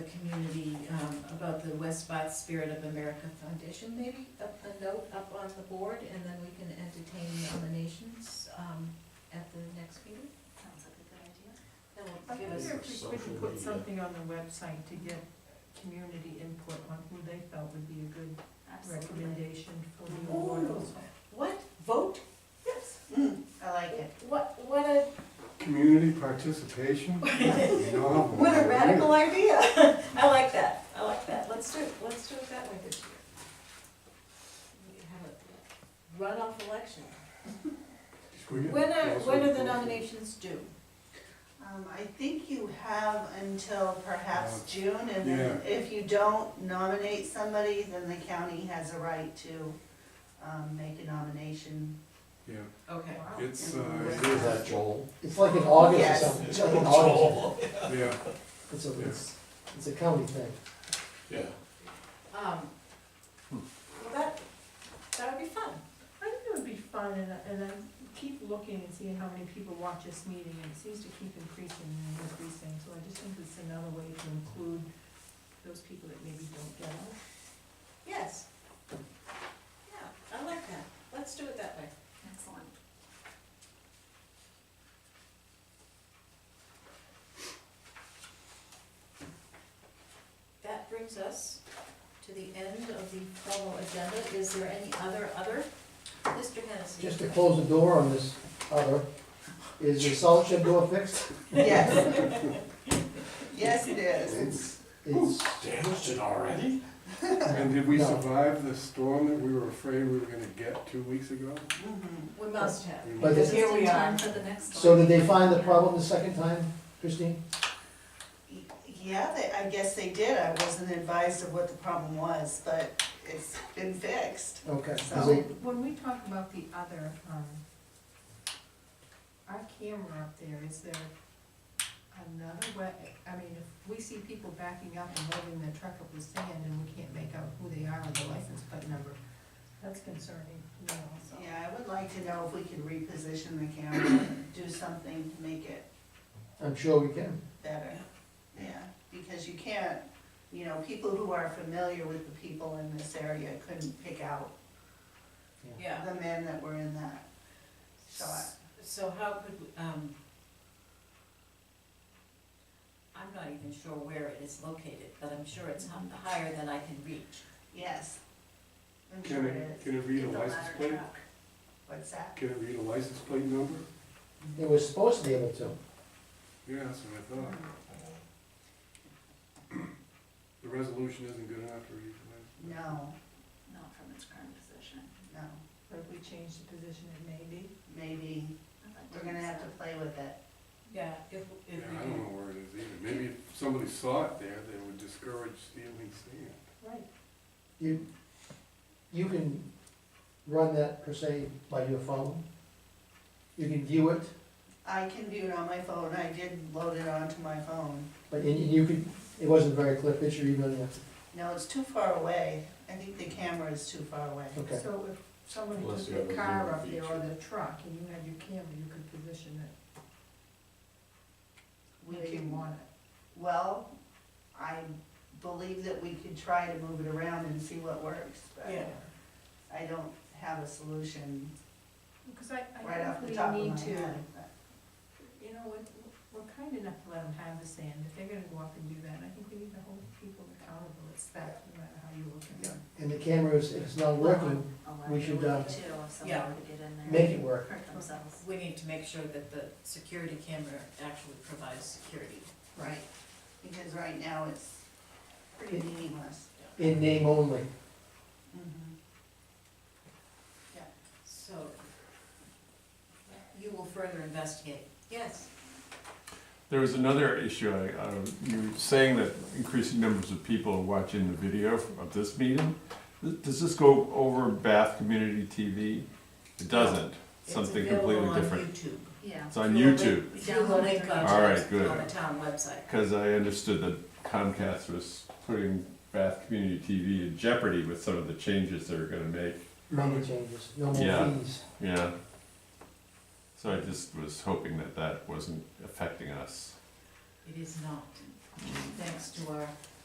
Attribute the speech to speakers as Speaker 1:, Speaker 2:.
Speaker 1: community, um, about the West Bath Spirit of America Foundation, maybe up a note up on the board, and then we can entertain nominations, um, at the next meeting.
Speaker 2: Sounds like a good idea.
Speaker 1: That
Speaker 3: I
Speaker 1: will give
Speaker 3: wonder
Speaker 1: us,
Speaker 3: if we
Speaker 4: Social
Speaker 3: could put
Speaker 4: media.
Speaker 3: something on the website to get community input on who they felt would be a good
Speaker 2: Absolutely.
Speaker 3: recommendation for the award
Speaker 1: Ooh.
Speaker 3: also.
Speaker 1: what, vote?
Speaker 3: Yes. I like it.
Speaker 1: What, what a,
Speaker 5: Community participation? Novel.
Speaker 1: what a radical idea. I like that, I like that. Let's do, it. let's do it that way this year. We Have a runoff election.
Speaker 5: Screw it.
Speaker 1: When are, when are the nominations due?
Speaker 6: Um, I think you have until perhaps June, and then
Speaker 5: Uh, Yeah.
Speaker 6: if you don't nominate somebody, then the county has a right to, um, make a nomination.
Speaker 5: Yeah,
Speaker 1: Okay.
Speaker 5: it's, uh,
Speaker 6: Is
Speaker 5: it
Speaker 4: Is
Speaker 5: is-
Speaker 4: that Joel?
Speaker 7: It's like in August or
Speaker 6: Yes.
Speaker 7: something, it's like in August,
Speaker 5: yeah,
Speaker 7: it's a, it's, it's a county thing.
Speaker 4: Yeah.
Speaker 1: Um, well, that, that would be fun.
Speaker 3: I think it would be fun, and, I- and I keep looking and seeing how many people watch this meeting, and it seems to keep increasing and increasing, so I just think it's another way to include those people that maybe don't get it.
Speaker 1: Yes. Yeah, I like that. Let's do it that way.
Speaker 2: Excellent.
Speaker 1: That brings us to the end of the formal agenda. Is there any other, other? Mr. Hennessy?
Speaker 7: Just to close the door on this other, is the salt shed door fixed?
Speaker 6: Yes. Yes, it is. It's,
Speaker 7: It's,
Speaker 4: Damaged it already?
Speaker 5: and did we
Speaker 7: No.
Speaker 5: survive the storm that we were afraid we were gonna get two weeks ago?
Speaker 6: mhm.
Speaker 1: We must have.
Speaker 5: We
Speaker 7: But
Speaker 5: must-
Speaker 7: this-
Speaker 2: Just
Speaker 1: Here we
Speaker 2: in time
Speaker 1: are.
Speaker 2: for the next
Speaker 7: so
Speaker 2: one.
Speaker 7: did they find the problem the second time, Christine?
Speaker 6: Yeah, they, I guess they did, I wasn't advised of what the problem was, but it's been fixed.
Speaker 7: Okay, 'cause
Speaker 6: So-
Speaker 7: they-
Speaker 3: When we talk about the other, um, our camera up there, is there another way, I mean, if we see people backing up and loading their truck up with sand and we can't make out who they are or the license plate number, that's concerning, you know, so.
Speaker 6: Yeah, I would like to know if we could reposition the camera, do something to make it
Speaker 7: I'm sure we can.
Speaker 6: better, yeah, because you can't, you know, people who are familiar with the people in this area couldn't pick out
Speaker 1: Yeah.
Speaker 6: the men that were in that shot.
Speaker 1: So how could, we, um, I'm not even sure where it is located, but I'm sure it's hi- higher than I can reach.
Speaker 6: Yes. I'm sure
Speaker 5: Can
Speaker 6: it
Speaker 5: it,
Speaker 6: is.
Speaker 5: can it read a
Speaker 6: Get the
Speaker 5: license
Speaker 6: ladder
Speaker 5: plate?
Speaker 6: truck. What's that?
Speaker 5: Can it read a license plate number?
Speaker 7: They were supposed to be able to.
Speaker 5: Yeah, that's what I uh, thought.
Speaker 6: Hmm.
Speaker 5: The resolution isn't good enough to read the license.
Speaker 6: No,
Speaker 2: Not from its current position.
Speaker 6: no,
Speaker 3: But if we change the position, it may be.
Speaker 6: maybe,
Speaker 2: I'd like
Speaker 6: we're gonna have to play with it.
Speaker 1: Yeah, if,
Speaker 5: Yeah,
Speaker 1: if we
Speaker 5: I
Speaker 1: do.
Speaker 5: don't know where it is either. Maybe if somebody saw it there, they would discourage stealing sand.
Speaker 3: Right.
Speaker 7: You, you can run that per se by your phone. You can view it,
Speaker 6: I can view it on my phone, I did load it onto my phone.
Speaker 7: but, and you could, it wasn't a very clear picture even on the-
Speaker 6: No, it's too far away, I think the camera is too far away.
Speaker 7: okay.
Speaker 3: So if somebody
Speaker 4: Unless
Speaker 3: took
Speaker 4: you have
Speaker 3: their
Speaker 4: a
Speaker 3: car
Speaker 4: zoom
Speaker 3: up there or
Speaker 4: feature.
Speaker 3: their truck and you had your camera, you could position it
Speaker 6: We
Speaker 3: where you
Speaker 6: can
Speaker 3: want it.
Speaker 6: Well, I believe that we could try to move it around and see what works,
Speaker 1: Yeah.
Speaker 6: but I don't have a solution
Speaker 3: Because I,
Speaker 6: right
Speaker 3: I
Speaker 6: off the
Speaker 3: think
Speaker 6: top
Speaker 3: we
Speaker 6: of my
Speaker 3: need to.
Speaker 6: head. but-
Speaker 3: you know, we're, we're kind enough to let them have the sand, if they're gonna go up and do that, and I think we need to hold people accountable, it's that, no matter how you look at it.
Speaker 7: And the camera is, if it's not working, we should, uh,
Speaker 2: Too, if
Speaker 1: yeah.
Speaker 2: someone were to get in there.
Speaker 7: make it work.
Speaker 2: Hurt themselves.
Speaker 1: We need to make sure that the security camera actually provides security.
Speaker 6: Right, because right now it's pretty meaningless.
Speaker 7: in name only.
Speaker 1: So you will further investigate. Yes.
Speaker 8: There was another issue, I, I, you were saying that increasing numbers of people are watching the video of this meeting. Th- Does this go over Bath Community TV? It doesn't,
Speaker 1: It's
Speaker 8: something
Speaker 1: available
Speaker 8: completely
Speaker 1: on
Speaker 8: different.
Speaker 1: YouTube.
Speaker 2: Yeah.
Speaker 8: It's on
Speaker 1: Through a link-
Speaker 8: YouTube,
Speaker 1: Through the link on,
Speaker 8: All right,
Speaker 1: on
Speaker 8: good.
Speaker 1: the town website.
Speaker 8: because I understood that Comcast was putting Bath Community TV in jeopardy with some of the changes they were gonna make,
Speaker 7: Money changes, no more
Speaker 8: Yeah.
Speaker 7: fees.
Speaker 8: yeah. So I just was hoping that that wasn't affecting us.
Speaker 1: It is not, thanks to our